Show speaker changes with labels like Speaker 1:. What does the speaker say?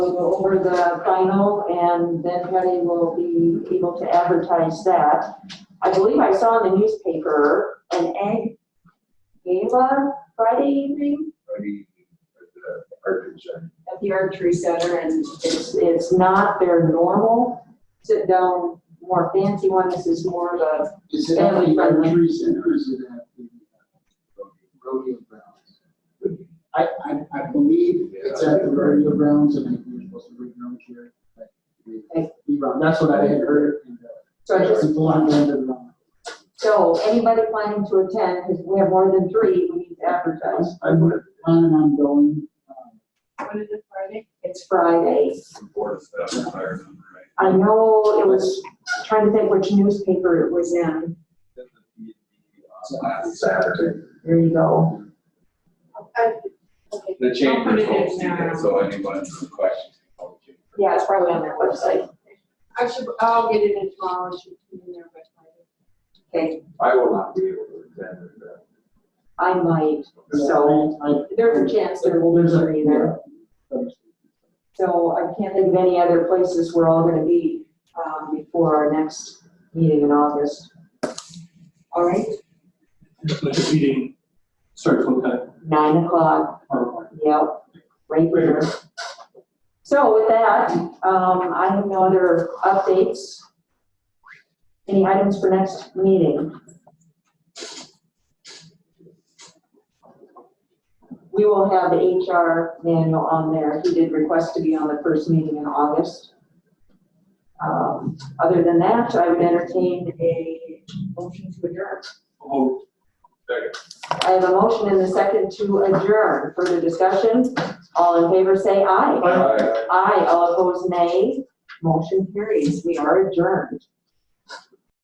Speaker 1: We'll go over the final and then Patty will be able to advertise that. I believe I saw in the newspaper an egg gala Friday evening
Speaker 2: Friday, at uh, the Arctic Center.
Speaker 1: at the archery center and it's, it's not their normal sit down, more fancy one. This is more of a,
Speaker 3: Is it at
Speaker 1: Family
Speaker 3: the
Speaker 1: friendly.
Speaker 3: archery center or is it at the uh, rodeo grounds? I, I, I believe it's at the rodeo grounds and I think we're supposed to bring your own here. but we- we run. That's what I had heard. and, uh,
Speaker 1: so I just
Speaker 3: It's a blind random run.
Speaker 1: So anybody planning to attend, because we have more than three, we need to advertise.
Speaker 3: I would have planned on going, um,
Speaker 4: What is it, Friday?
Speaker 1: It's Friday.
Speaker 2: Support that entire number, right?
Speaker 1: I know it was, trying to think which newspaper it was in.
Speaker 2: Then the PNB on Last Saturday,
Speaker 1: There you go.
Speaker 4: Okay.
Speaker 2: the
Speaker 4: I'll put
Speaker 2: chamber
Speaker 4: it in
Speaker 2: folks, did
Speaker 4: now.
Speaker 2: it, so anyone who questions. can call the chamber.
Speaker 1: Yeah, it's probably on their website.
Speaker 4: I should, I'll get it in tomorrow, it should be in there by Friday.
Speaker 1: Okay,
Speaker 2: I will not be able to attend uh, that.
Speaker 1: I might. So-
Speaker 3: so I.
Speaker 1: There's a chance there will be three there. So I can't think of any other places we're all gonna be, um, before our next meeting in August. All right,
Speaker 5: Like the meeting starts what time?
Speaker 1: nine o'clock. um,
Speaker 5: Or-
Speaker 1: Yep, right there. So with that, um, I have no other updates. Any items for next meeting? We will have the HR manual on there. He did request to be on the first meeting in August. Um, other than that, I would entertain a motion to adjourn.
Speaker 5: Oh,
Speaker 1: I have a motion and a second to adjourn. Further discussion? All in favor, say aye.
Speaker 5: Aye.
Speaker 1: Aye, all opposed, nay. Motion carries. We are adjourned.